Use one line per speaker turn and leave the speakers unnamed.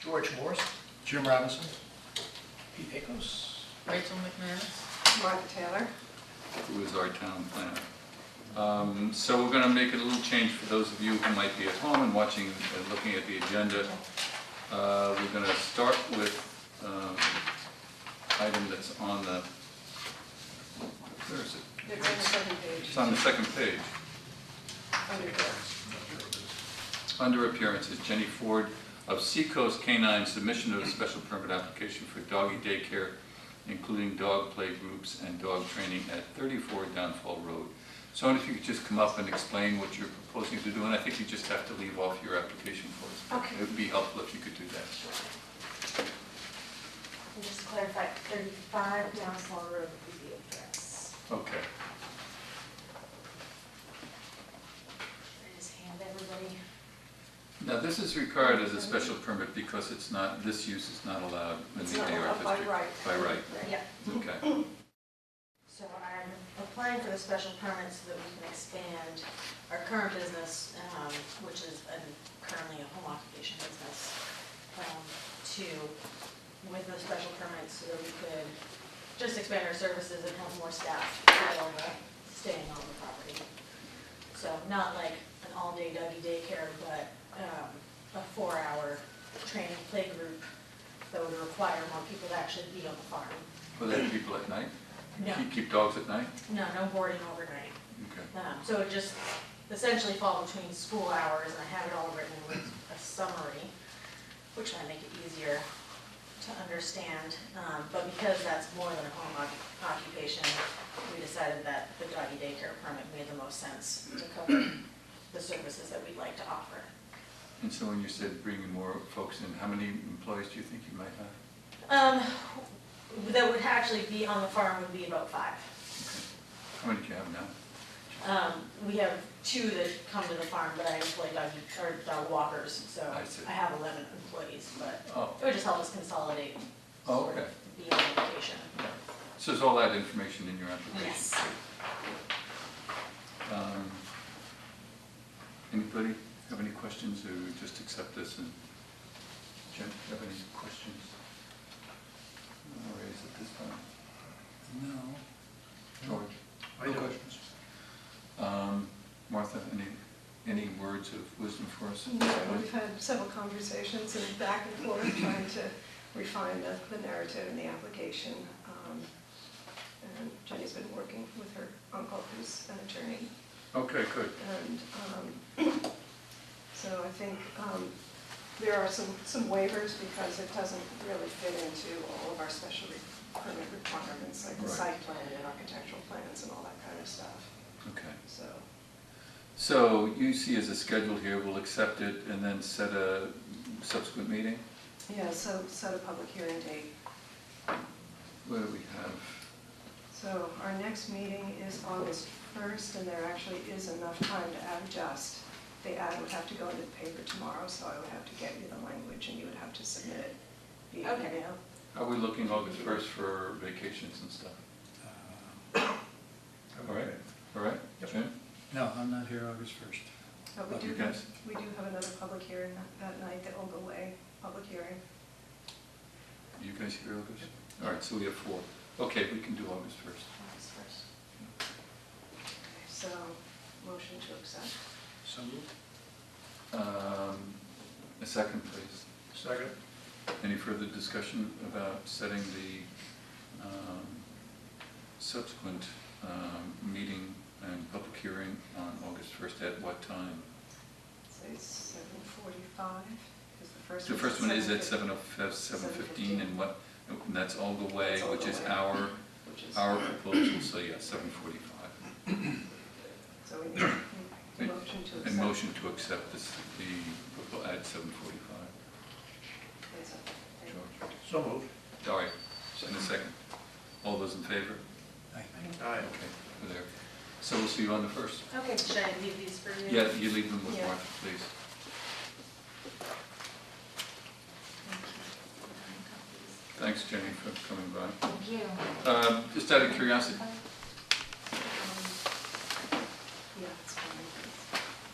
George Morris,
Jim Robinson.
Pete Akos,
Rachel McManus.
Martha Taylor.
who is our town planner. Um, So we're going to make a little change for those of you who might be at home and watching, and looking at the agenda. Uh, We're going to start with um, item that's on the, where is it?
They're on the second page.
It's on the second page.
Under there.
Under appearances, Jenny Ford of Seacoast Canine submission of a special permit application for doggy daycare, including dog play groups and dog training at 34 Downfall Road. So if you could just come up and explain what you're proposing to do, and I think you just have to leave off your application for us.
Okay.
It would be helpful if you could do that.
And just to clarify, 35 Downfall Road is the address.
Okay.
I just hand everybody.
Now, this is required as a special permit because it's not, this use is not allowed in
It's
the AR
not
district.
allowed by right.
By right,
Yeah.
okay.
So I'm applying for the special permit so that we can expand our current business, um, which is um, currently a home occupation business, um, to, with the special permit so that we could just expand our services and have more staff while uh, staying on the property. So not like an all-day doggy daycare, but um, a four-hour training play group that would require more people to actually be on the farm.
Will that have people at night?
No.
Keep- Keep dogs at night?
No, no boarding overnight.
Okay.
Um, So it just essentially fall between school hours, and I have it all written with a summary, which might make it easier to understand. Um, But because that's more than a home occ- occupation, we decided that the doggy daycare permit made the most sense to cover the services that we'd like to offer.
And so when you said bringing more folks in, how many employees do you think you might have?
Um, That would actually be on the farm would be about five.
How many do you have now?
Um, we have two that come to the farm, but I employ dog, or dog walkers, so
I see.
I have eleven employees, but
Oh,
it would just help us consolidate.
Oh,
sort of
okay.
Be on location.
so is all that information in your application?
Yes.
Um, Anybody have any questions or just accept this and, Jim, you have any questions? No worries at this time.
No.
George?
I
No
don't.
questions? Um, Martha, any, any words of wisdom for us?
No, We've had several conversations and back and forth trying to refine the, the narrative and the application. Um, And Jenny's been working with her uncle, who's an attorney,
Okay, good.
and um, so I think um, there are some, some waivers because it doesn't really fit into all of our special re- permit requirements, like the
Right.
site plan and architectural plans and all that kind of stuff,
Okay.
so.
So you see as a schedule here, we'll accept it and then set a subsequent meeting?
Yeah, so set a public hearing date.
What do we have?
So our next meeting is August 1st, and there actually is enough time to adjust. The ad would have to go into the paper tomorrow, so I would have to get you the language, and you would have to submit it via
Okay.
email.
Are we looking August first for vacations and stuff?
Uh,
All right, all right,
Yep.
Jim?
No, I'm not here August 1st.
But we
Okay,
do,
guys.
we do have another public hearing that- that night, the Ogle Way public hearing.
You guys here August? All right, so we have four. Okay, we can do August first.
August first.
So, motion to accept.
So moved.
Um, a second, please.
Second.
Any further discussion about setting the, um, subsequent, um, meeting and public hearing on August first at what time?
So it's 7:45, is the first
The
one.
first one is at
7:50,
seven oh, f- seven fifteen, and what, and that's all the way,
That's all
which
the
is
way.
our,
Which is,
our proposal, so yeah, seven forty-five.
so we need a motion to accept.
And motion to accept this, the, propo- at seven forty-five.
Is it-
George?
So moved.
All right, in a second. All those in favor?
Aye. Aye.
Okay, we're there. So we'll see you on the first.
Okay, should I leave these for you?
Yeah, you leave them with
Yeah.
Martha, please. Thanks, Jenny, for coming by.
Thank you.
Um, Just out of curiosity,